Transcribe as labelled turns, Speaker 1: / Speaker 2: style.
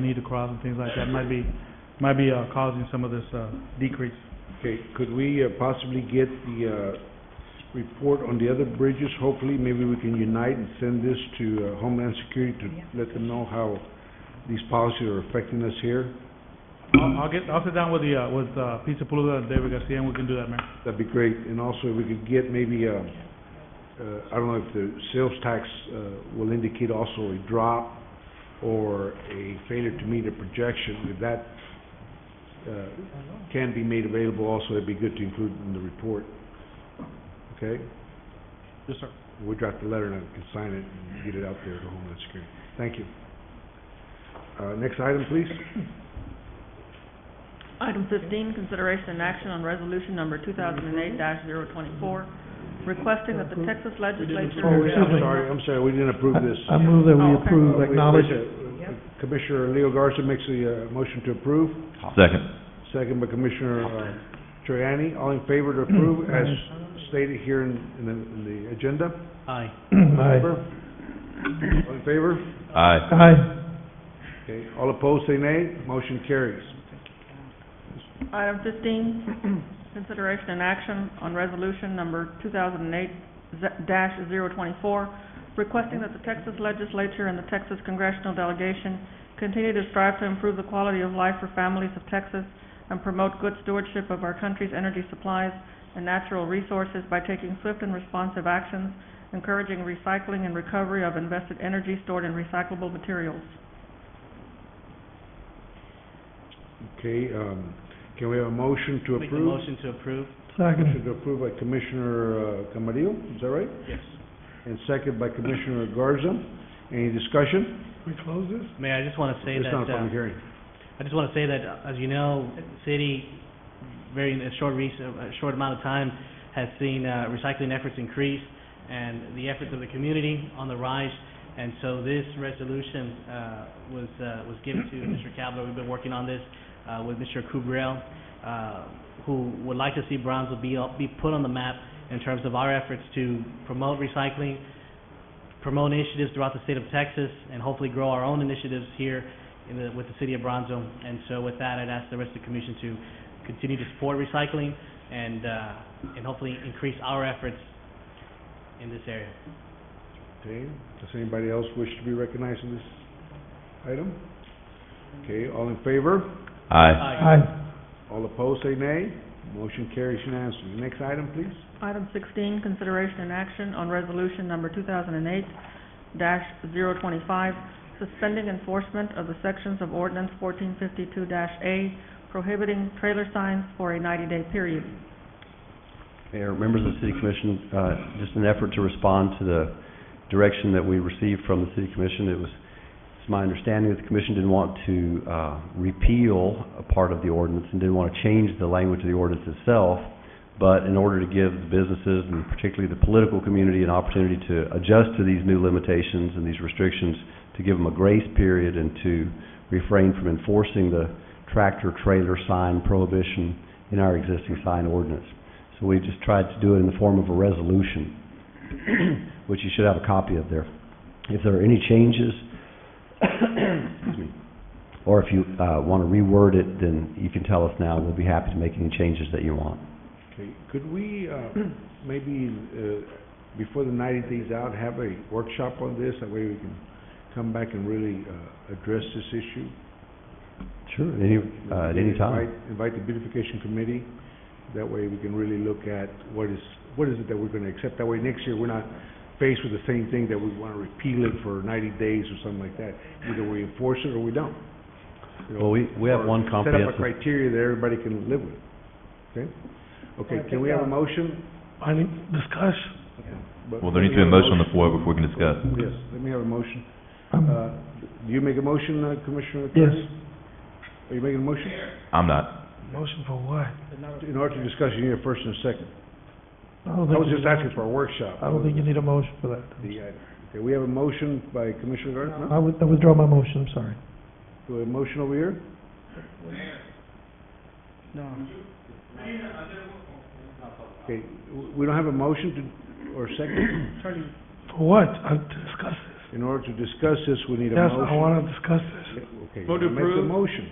Speaker 1: they need to cross and things like that might be, might be uh, causing some of this uh, decrease.
Speaker 2: Okay, could we uh, possibly get the uh, report on the other bridges? Hopefully, maybe we can unite and send this to uh, Homeland Security to let them know how these policies are affecting us here.
Speaker 1: I'll I'll get, I'll sit down with the, uh, with uh, Pizza Palooza and David Garcia, and we can do that, Mayor.
Speaker 2: That'd be great. And also, if we could get maybe, uh, uh, I don't know if the sales tax uh, will indicate also a drop or a failure to meet a projection, if that uh, can be made available also, it'd be good to include in the report. Okay?
Speaker 1: Yes, sir.
Speaker 2: We draft the letter and I can sign it and get it out there to Homeland Security. Thank you. Uh, Next item, please.
Speaker 3: Item fifteen, consideration and action on resolution number two thousand and eight 24 requesting that the Texas legislature.
Speaker 4: Oh, excuse
Speaker 2: I'm
Speaker 4: me.
Speaker 2: sorry, I'm sorry, we didn't approve this.
Speaker 4: I move that
Speaker 3: Oh,
Speaker 4: we
Speaker 3: okay.
Speaker 4: approve, acknowledge.
Speaker 2: Uh, Commissioner Leo Garza makes the uh, motion to approve,
Speaker 5: Second.
Speaker 2: second by Commissioner uh, Troyani. All in favor to
Speaker 4: Mm-hmm.
Speaker 2: approve as stated here in in the- in the agenda?
Speaker 1: Aye.
Speaker 4: Aye.
Speaker 2: All in favor?
Speaker 5: Aye.
Speaker 4: Aye.
Speaker 2: Okay, all opposed, say nay. Motion carries.
Speaker 3: Item fifteen, consideration and action on resolution number two thousand and eight dash requesting that the Texas legislature and the Texas congressional delegation continue to strive to improve the quality of life for families of Texas and promote good stewardship of our country's energy supplies and natural resources by taking swift and responsive actions, encouraging recycling and recovery of invested energy stored in recyclable materials.
Speaker 2: Okay, um, can we have a motion to
Speaker 6: Make the
Speaker 2: approve?
Speaker 6: motion to approve?
Speaker 2: Motion
Speaker 4: Second.
Speaker 2: to approve by Commissioner uh, Camarillo, is that right?
Speaker 6: Yes.
Speaker 2: And second by Commissioner Garza. Any discussion?
Speaker 4: We close this?
Speaker 6: Mayor, I just want to say
Speaker 2: It's
Speaker 6: that,
Speaker 2: not a
Speaker 6: uh,
Speaker 2: public hearing.
Speaker 6: I just want to say that, uh, as you know, city, very, in a short recent, a short amount of time, has seen uh, recycling efforts increase and the efforts of the community on the rise. And so this resolution uh, was, uh, was given to Mr. Cavler. We've been working on this uh, with Mr. Kubrell, uh, who would like to see Brownsville be, be put on the map in terms of our efforts to promote recycling, promote initiatives throughout the state of Texas, and hopefully grow our own initiatives here in the, with the city of Bronzo. And so with that, I'd ask the rest of the commission to continue to support recycling and, uh, and hopefully increase our efforts in this area.
Speaker 2: Okay, does anybody else wish to be recognized in this item? Okay, all in favor?
Speaker 5: Aye.
Speaker 4: Aye.
Speaker 2: All opposed, say nay. Motion carries unanimously. Next item, please.
Speaker 3: Item sixteen, consideration and action on resolution number two thousand and eight 25 suspending enforcement of the sections of ordinance fourteen fifty-two A prohibiting trailer signs for a ninety-day period.
Speaker 7: Mayor, members of the City Commission, uh, just an effort to respond to the direction that we received from the City Commission. It was, it's my understanding that the Commission didn't want to uh, repeal a part of the ordinance and didn't want to change the language of the ordinance itself, but in order to give the businesses and particularly the political community an opportunity to adjust to these new limitations and these restrictions, to give them a grace period and to refrain from enforcing the tractor-trailer sign prohibition in our existing sign ordinance. So we just tried to do it in the form of a resolution, which you should have a copy of there. If there are any changes, excuse me, or if you uh, want to reword it, then you can tell us now. We'll be happy to make any changes that you want.
Speaker 2: Okay, could we, uh, maybe, uh, before the ninety days out, have a workshop on this? That way we can come back and really, uh, address this issue?
Speaker 7: Sure. Any, uh, at any time.
Speaker 2: Invite- Invite the beautification committee, that way we can really look at what is, what is it that we're gonna accept, that way next year we're not faced with the same thing that we wanna repeal it for ninety days or something like that, either we enforce it or we don't. You know,
Speaker 7: Well, we, we have one
Speaker 2: Set up a
Speaker 7: comprehensive,
Speaker 2: criteria that everybody can live with, okay? Okay, can we have a motion?
Speaker 4: I need discussion.
Speaker 2: But-
Speaker 5: Well, there needs to be a motion on the floor before we can discuss.
Speaker 2: Yes, let me have a motion,
Speaker 4: Um,
Speaker 2: uh, do you make a motion, uh, Commissioner?
Speaker 4: Yes.
Speaker 2: Are you making a motion?
Speaker 5: I'm not.
Speaker 4: Motion for what?
Speaker 2: In order to discuss, you need a first and a second.
Speaker 4: I
Speaker 2: I
Speaker 4: don't think
Speaker 2: was
Speaker 4: you
Speaker 2: just
Speaker 4: need-
Speaker 2: asking for a workshop.
Speaker 4: I don't think you need a motion for that.
Speaker 2: The item. Okay, we have a motion by Commissioner Garza, no?
Speaker 4: I would, I withdraw my motion, I'm sorry.
Speaker 2: Do we have a motion over here?
Speaker 6: No.
Speaker 2: Okay, w- we don't have a motion to, or second?
Speaker 4: For what? I discuss this. In order to discuss this, we need a
Speaker 2: Yes, I
Speaker 4: motion.
Speaker 2: want to discuss this.
Speaker 4: Okay,
Speaker 6: Vote to
Speaker 4: make the
Speaker 6: approve.
Speaker 4: motion.